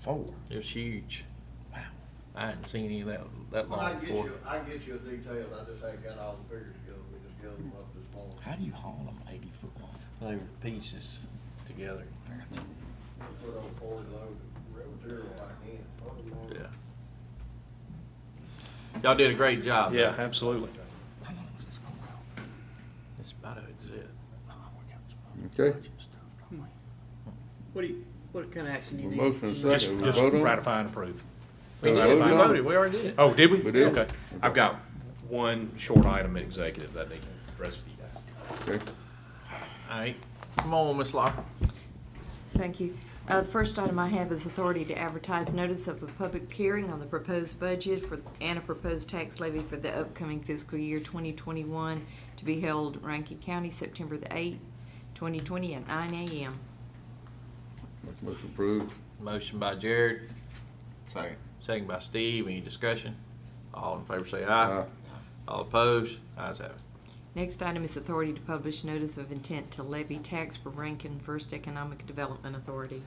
four. It was huge. Wow. I hadn't seen any of that, that Well, I long can get before. you, I can get you a detail, I just ain't got all the figures together, we just gave them up this morning. How do you haul them eighty foot long? They were pieces together. We Put on forty load of material back in. Yeah. Y'all did a great job. Yeah, though. absolutely. How long was this gonna go? It's about to exist. Okay, What do you, what kind of action do you Well, need? motion is Just, Second, we just vote on it? ratify and approve. We Uh, voted, voted we on it? voted, we already did it. Oh, did we? We did. Okay. I've got one short item in executive that I need the rest of you guys. okay. All right, come on, Miss Locke. Thank you. Uh, The first item I have is authority to advertise notice of a public hearing on the proposed budget for, and a proposed tax levy for the upcoming fiscal year 2021 to be held in Rankin County, September the 8th, 2020, at 9 a.m. Make motion approved. Motion by Jared, Second. second by Steve, any discussion? All in favor say aye. Aye. All opposed, ayes have it. Next item is authority to publish notice of intent to levy tax for Rankin First Economic Development Authority.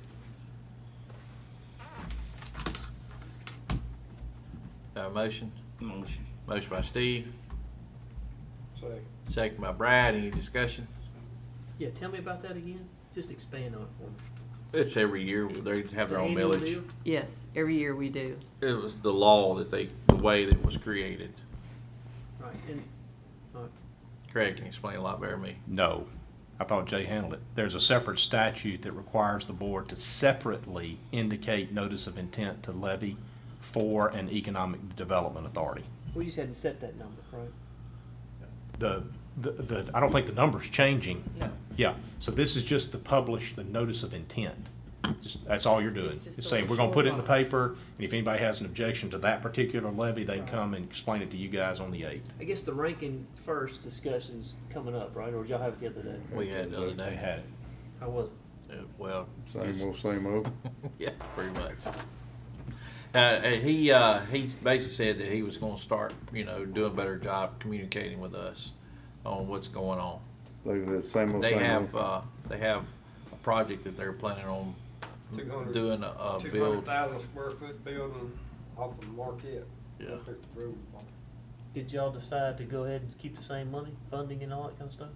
Have a motion? Motion. Motion by Steve. Second. Second by Brad, any discussion? Yeah, tell me about that again. Just expand on it for me. It's every year, they have their The own annual millage. deal? Yes, every year we do. It was the law that they, the way that was created. Right, and, all right. Craig can explain a lot better than me. No, I thought Jay handled it. There's a separate statute that requires the board to separately indicate notice of intent to levy for an economic development authority. we just hadn't set that number, right? The, the, the, I don't think the number's changing. No. Yeah, so this is just to publish the notice of intent. Just, that's all you're doing. It's just It's a saying, little we're gonna put it in the short box. paper, and if anybody has an objection to that particular levy, they can Right. come and explain it to you guys on the eighth. I guess the ranking first discussion's coming up, right? Or did y'all have it the other day? We had the other day. it. I wasn't. Uh, Well, Same old, same old. yeah, pretty much. Uh, uh, he, uh, he basically said that he was gonna start, you know, doing a better job communicating with us on what's going on. Leaving it same old, They same have, old. uh, they have a project that they're planning on doing a, a Two hundred build. thousand square foot building off of Marquette. Yeah. Up there at the road. Did y'all decide to go ahead and keep the same money, funding and all that kind of stuff?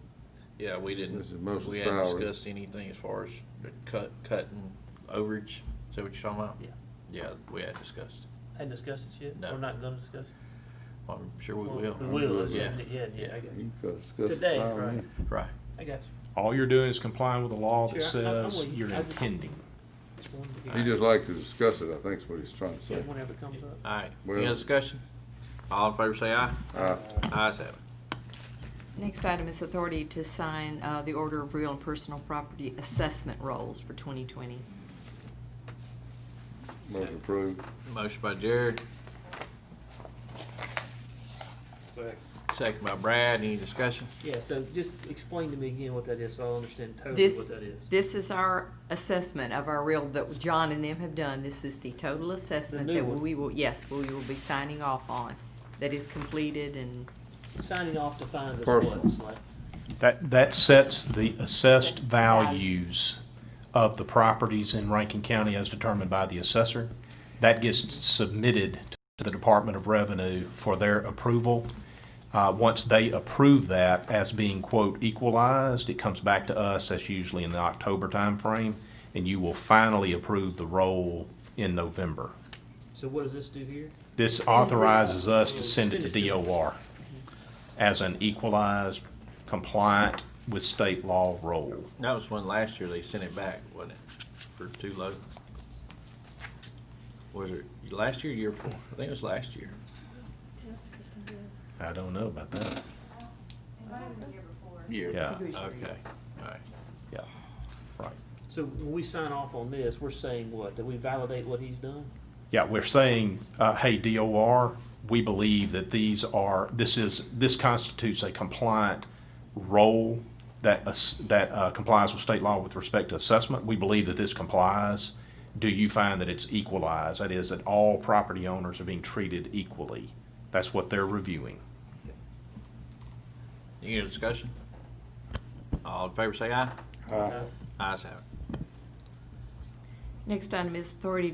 Yeah, we didn't, This is mostly we hadn't salary. discussed anything as far as the cut, cutting overage. Is that what you're talking about? Yeah. Yeah, we had discussed. Hadn't discussed it yet? No. We're not gonna discuss it? I'm sure we Well, will. We will, it's Yeah, something that- yeah, yeah, I got you. You can discuss it Today, tomorrow, right. yeah. right. I got All you're doing is complying with the law that Sure, I- I'm says with you. you're I just- intending. you. Just wanted to get- He just likes to discuss it, I think is what he's trying to Yeah, say. Whenever it comes up. All right, Well- any other discussion? All in favor say aye. Aye. Ayes have it. Next item is authority to sign uh, the order of real and personal property assessment rolls for 2020. Motion approved. Motion by Jared, second by Brad, any discussion? Yeah, so just explain to me again what that is, so I'll understand totally This, what that is. this is our assessment of our real, that John and them have done. This is the total assessment new that one. we will, yes, we will be signing off on, that is completed and, Signing off to find us Personal. what's like. That, that sets the assessed Assessed values of the properties in Rankin County as determined by the assessor. That gets submitted to the Department of Revenue for their approval. Uh, once they approve that as being quote equalized, it comes back to us, that's usually in the October timeframe, and you will finally approve the roll in November. So what does this do here? This authorizes us to send it to DOR as an equalized, compliant with state law roll. That was when last year they sent it back, wasn't it, for too low? Was it last year, or year before? I think it was last year. I don't know about that. Year. Yeah. Okay, all right. Yeah. Right. So when we sign off on this, we're saying what? That we validate what he's done? Yeah, we're saying, uh, hey, DOR, we believe that these are, this is, this constitutes a compliant role that, ass- that uh, complies with state law with respect to assessment. We believe that this complies. Do you find that it's equalized? That is, that all property owners are being treated equally. That's what they're reviewing. Any other discussion? All in favor say aye. Aye. Uh, Ayes have it. next item is authority to